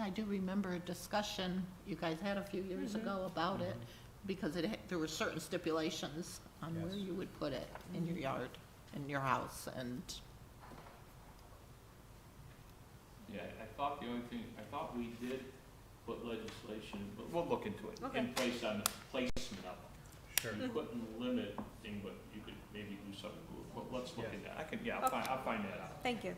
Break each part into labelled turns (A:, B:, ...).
A: I do remember a discussion you guys had a few years ago about it, because it, had- there were certain stipulations on where
B: Yes.
A: you would put it in your yard, in your house, and,
C: Yeah, I thought the only thing, I thought we did put legislation, but we'll look into it, in
D: Okay.
C: place on the placement of them.
B: Sure.
C: You couldn't limit thing, but you could maybe do something, Well, let's look at that, I can, yeah, I'll
D: Okay.
C: find, I'll find that out.
D: Thank you.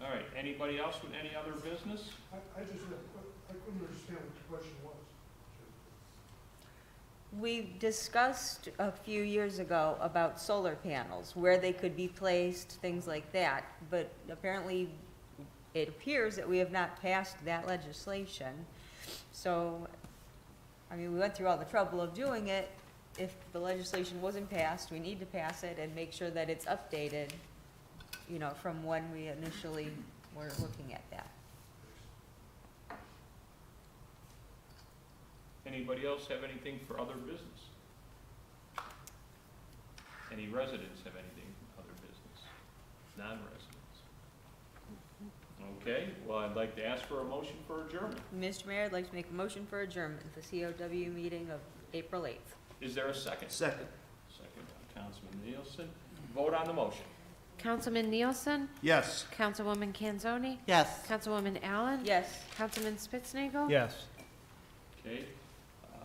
C: All right, anybody else with any other business?
E: I, I just, had a que- I couldn't understand what the question was.
D: We discussed a few years ago about solar panels, where they could be placed, things like that, but apparently it appears that we have not passed that legislation. So, I mean, we went through all the trouble of doing it. If the legislation wasn't passed, we need to pass it and make sure that it's updated, you know, from when we initially were looking at that.
C: Anybody else have anything for other business? Any residents have anything for other business? Non-residents? Okay, well, I'd like to ask for a motion for adjournment.
D: Mr. Mayor, I'd like to make a motion for adjournment, the COW meeting of April 8th.
C: Is there a second?
B: Second.
C: Second by Councilman Nielsen. Vote on the motion.
F: Councilman Nielsen?
B: Yes.
F: Councilwoman Kanzoni?
A: yes.
F: Councilwoman Allen?
D: Yes.
F: Councilman Spitznagel,
B: Yes.
C: Okay? Uh,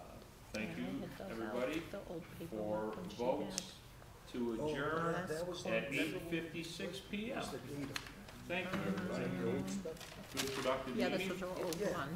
C: Thank you,
A: Yeah, I had those out,
C: everybody,
A: the old paperwork
C: for
A: when she
C: votes
A: had-
C: to adjourn at eight fifty-six PM. Thank you, everybody. Good productive
A: Yeah, this
C: meeting.
A: was her old one.